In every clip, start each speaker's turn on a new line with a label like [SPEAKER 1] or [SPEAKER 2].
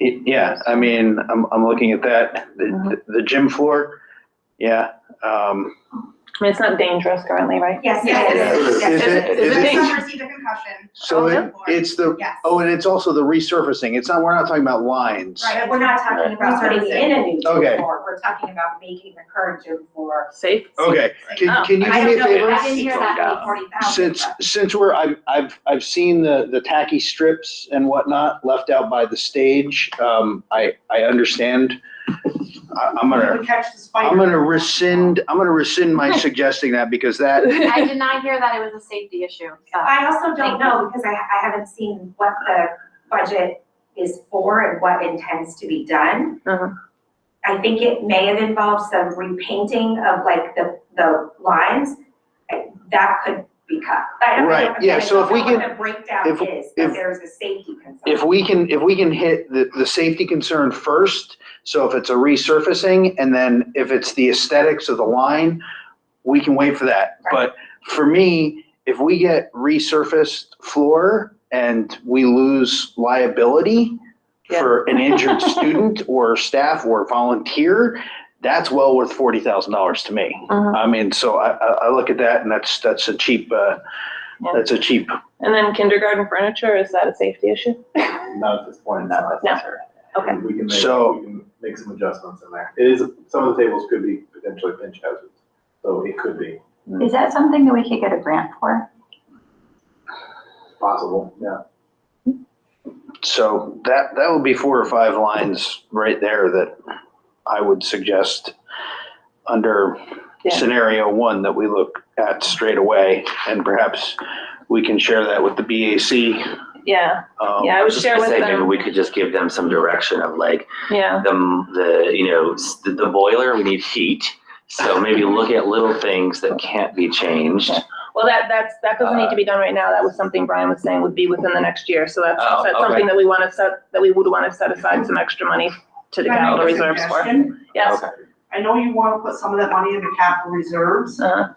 [SPEAKER 1] Y- Yeah, I mean, I'm, I'm looking at that,
[SPEAKER 2] Mm-hmm.
[SPEAKER 1] the, the gym floor, yeah, um,
[SPEAKER 3] I mean, it's not dangerous currently, right?
[SPEAKER 2] Yes,
[SPEAKER 4] Yes,
[SPEAKER 2] it
[SPEAKER 1] it is.
[SPEAKER 2] is.
[SPEAKER 1] Is
[SPEAKER 2] Yes,
[SPEAKER 1] it-
[SPEAKER 2] it
[SPEAKER 1] is
[SPEAKER 2] is.
[SPEAKER 1] it-
[SPEAKER 2] Someone received a concussion.
[SPEAKER 1] so
[SPEAKER 2] on the
[SPEAKER 1] it,
[SPEAKER 2] Oh, floor.
[SPEAKER 1] it's the,
[SPEAKER 2] Yes.
[SPEAKER 1] oh, and it's also the resurfacing, it's not, we're not talking about lines.
[SPEAKER 2] Right, but we're not talking about
[SPEAKER 4] Putting in
[SPEAKER 2] servicing.
[SPEAKER 4] a new
[SPEAKER 1] Okay.
[SPEAKER 4] gym floor, we're talking about making the current gym floor.
[SPEAKER 3] Safe?
[SPEAKER 1] Okay, can,
[SPEAKER 3] Oh,
[SPEAKER 1] can you
[SPEAKER 2] I
[SPEAKER 1] do me a
[SPEAKER 2] don't know,
[SPEAKER 1] favor?
[SPEAKER 2] I
[SPEAKER 4] didn't hear that many forty thousand.
[SPEAKER 1] Since, since we're, I've, I've, I've seen the, the tacky strips and whatnot left out by the stage, um, I, I understand. I, I'm gonna,
[SPEAKER 2] We catch the spider.
[SPEAKER 1] I'm gonna rescind, I'm gonna rescind my suggesting that because that,
[SPEAKER 5] I did not hear that it was a safety issue. so.
[SPEAKER 4] I also don't know, because I, I haven't seen what the budget is for and what intends to be done.
[SPEAKER 3] Uh-huh.
[SPEAKER 4] I think it may have involved some repainting of like the, the lines, that could be cut. I don't know,
[SPEAKER 1] Right, yeah,
[SPEAKER 4] again, I
[SPEAKER 1] so
[SPEAKER 4] don't
[SPEAKER 1] if we
[SPEAKER 4] know what
[SPEAKER 1] can-
[SPEAKER 4] The breakdown
[SPEAKER 1] if-
[SPEAKER 4] is,
[SPEAKER 1] if-
[SPEAKER 4] but there's a safety concern.
[SPEAKER 1] if we can, if we can hit the, the safety concern first, so if it's a resurfacing, and then if it's the aesthetics of the line, we can wait for that. But for me, if we get resurfaced floor and we lose liability for an injured student or staff or volunteer, that's well worth forty thousand dollars to me.
[SPEAKER 3] Mhm.
[SPEAKER 1] I mean, so I, I, I look at that and that's, that's a cheap, uh,
[SPEAKER 3] Yeah.
[SPEAKER 1] that's a cheap,
[SPEAKER 3] And then kindergarten furniture, is that a safety issue?
[SPEAKER 6] Not at this point, not
[SPEAKER 3] No.
[SPEAKER 6] necessary.
[SPEAKER 3] Okay.
[SPEAKER 6] We can make,
[SPEAKER 1] So-
[SPEAKER 6] we can make some adjustments in there. It is, some of the tables could be potentially pinch houses, so it could be
[SPEAKER 7] Is that something that we could get a grant for?
[SPEAKER 6] possible, yeah.
[SPEAKER 1] So that, that would be four or five lines right there that I would suggest under
[SPEAKER 3] Yeah.
[SPEAKER 1] scenario one that we look at straight away. And perhaps we can share that with the BAC.
[SPEAKER 3] Yeah,
[SPEAKER 1] um,
[SPEAKER 3] yeah, I would
[SPEAKER 8] was just
[SPEAKER 3] share
[SPEAKER 8] gonna
[SPEAKER 3] with
[SPEAKER 8] say, maybe
[SPEAKER 3] them,
[SPEAKER 8] we could just give them some direction of like,
[SPEAKER 3] yeah.
[SPEAKER 8] the, the, you know, s- the the boiler, we need heat. So maybe look at little things that can't be changed.
[SPEAKER 3] Well, that, that's, that doesn't need to be done right now, that was something Brian was saying would be within the next year, so that's,
[SPEAKER 8] Oh,
[SPEAKER 3] that's
[SPEAKER 8] okay.
[SPEAKER 3] something that we wanna set, that we would wanna set aside some extra money to the
[SPEAKER 2] Can I
[SPEAKER 3] capital
[SPEAKER 2] make a
[SPEAKER 3] reserves for.
[SPEAKER 2] suggestion?
[SPEAKER 3] Yes,
[SPEAKER 2] I know you want to put some of that money in the capital reserves.
[SPEAKER 3] uh,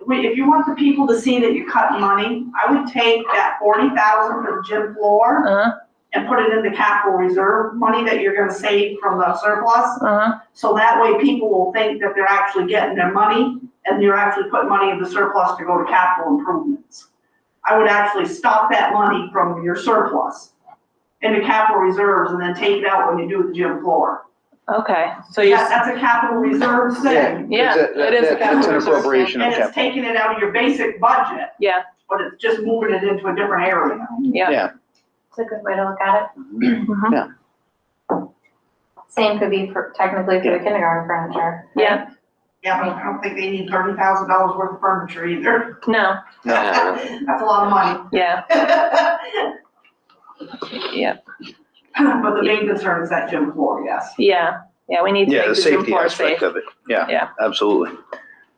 [SPEAKER 2] Wait, If you want the people to see that you're cutting money, I would take that forty thousand for the gym floor
[SPEAKER 3] uh,
[SPEAKER 2] and put it in the capital reserve, money that you're gonna save from the surplus.
[SPEAKER 3] uh,
[SPEAKER 2] So that way people will think that they're actually getting their money and you're actually putting money in the surplus to go to capital improvements. I would actually stop that money from your surplus into capital reserves and then take it out when you do the gym floor.
[SPEAKER 3] okay, so you,
[SPEAKER 2] That- That's a capital reserve thing.
[SPEAKER 3] Yeah,
[SPEAKER 1] That- that-
[SPEAKER 3] it is a
[SPEAKER 1] That's an
[SPEAKER 3] capital reserve.
[SPEAKER 1] appropriation
[SPEAKER 2] And
[SPEAKER 1] of
[SPEAKER 2] it's
[SPEAKER 1] capital.
[SPEAKER 2] taking it out of your basic budget,
[SPEAKER 3] yeah,
[SPEAKER 2] but it's just moving it into a different area.
[SPEAKER 3] yeah,
[SPEAKER 5] It's a good way to look at
[SPEAKER 3] Mhm.
[SPEAKER 5] it. Same could be for, technically for the kindergarten furniture. right?
[SPEAKER 3] Yeah.
[SPEAKER 2] Yeah, but I don't think they need thirty thousand dollars worth of furniture either.
[SPEAKER 3] no,
[SPEAKER 8] Uh,
[SPEAKER 2] That's a lot of money.
[SPEAKER 3] yeah,
[SPEAKER 2] But
[SPEAKER 3] yeah,
[SPEAKER 2] the main concern is that gym floor, yes.
[SPEAKER 3] yeah, yeah, we need to
[SPEAKER 1] Yeah,
[SPEAKER 3] make
[SPEAKER 1] the
[SPEAKER 3] the gym
[SPEAKER 1] safety
[SPEAKER 3] floor
[SPEAKER 1] aspect
[SPEAKER 3] safe.
[SPEAKER 1] of it. Yeah.
[SPEAKER 3] Yeah.
[SPEAKER 1] Absolutely.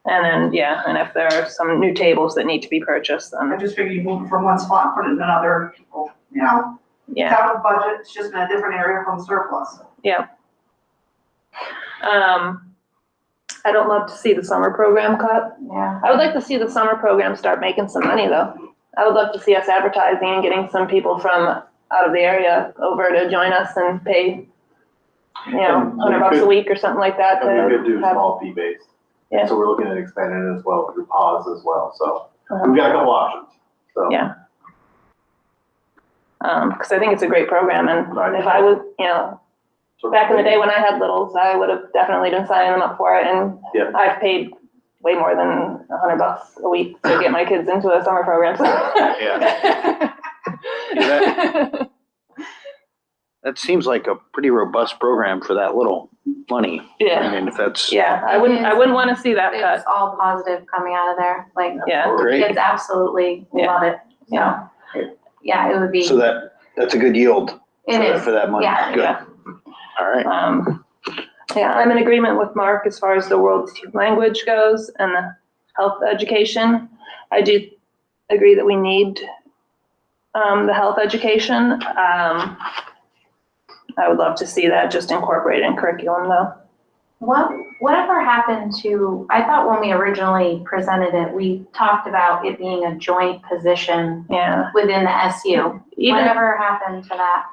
[SPEAKER 3] And then, yeah, and if there are some new tables that need to be purchased,
[SPEAKER 2] I
[SPEAKER 3] then,
[SPEAKER 2] just figured you move it from one spot, put it in another, people, you know, it's
[SPEAKER 3] yeah,
[SPEAKER 2] out of budget, it's just in a different area from surplus.
[SPEAKER 3] um, I don't love to see the summer program cut,
[SPEAKER 5] Yeah.
[SPEAKER 3] I would like to see the summer program start making some money though. I would love to see us advertising and getting some people from out of the area over to join us and pay, you know,
[SPEAKER 6] And we
[SPEAKER 3] hundred bucks a
[SPEAKER 6] could-
[SPEAKER 3] week or something like that
[SPEAKER 6] And we could
[SPEAKER 3] to
[SPEAKER 6] do
[SPEAKER 3] Oh, have.
[SPEAKER 6] small fee based.
[SPEAKER 3] Yeah.
[SPEAKER 6] So we're looking at expanding it as well through pods as well, so
[SPEAKER 3] Uh-huh.
[SPEAKER 6] we've got a couple options, so.
[SPEAKER 3] Yeah. Um, cause I think it's a great program
[SPEAKER 6] Right.
[SPEAKER 3] and if I was, you know,
[SPEAKER 6] so-
[SPEAKER 3] back in the day when I had littles, I would have definitely been signing them up for it
[SPEAKER 6] Yeah.
[SPEAKER 3] and I've paid way more than a hundred bucks a week to get my kids into a summer program, so.
[SPEAKER 1] Yeah. That seems like a pretty robust program for that little money.
[SPEAKER 3] Yeah.
[SPEAKER 1] I mean, if that's,
[SPEAKER 3] Yeah, I wouldn't, I wouldn't want to see that
[SPEAKER 5] It's
[SPEAKER 3] cut.
[SPEAKER 5] all positive coming out of there, like,
[SPEAKER 3] Yeah,
[SPEAKER 1] Great.
[SPEAKER 5] kids absolutely
[SPEAKER 3] Yeah.
[SPEAKER 5] love it,
[SPEAKER 3] Yeah.
[SPEAKER 5] so. Yeah, it would be,
[SPEAKER 1] so that, that's a good yield
[SPEAKER 5] it is,
[SPEAKER 1] for that money.
[SPEAKER 5] yeah,
[SPEAKER 1] Good.
[SPEAKER 3] yeah.
[SPEAKER 1] All right.
[SPEAKER 3] Um, yeah, I'm in agreement with Mark as far as the world language goes and the health education. I do agree that we need, um, the health education. Um, I would love to see that just incorporated in curriculum though.
[SPEAKER 5] What, whatever happened to, I thought when we originally presented it, we talked about it being a joint position
[SPEAKER 3] Yeah,
[SPEAKER 5] within the SU.
[SPEAKER 3] even,
[SPEAKER 5] Whatever happened to that?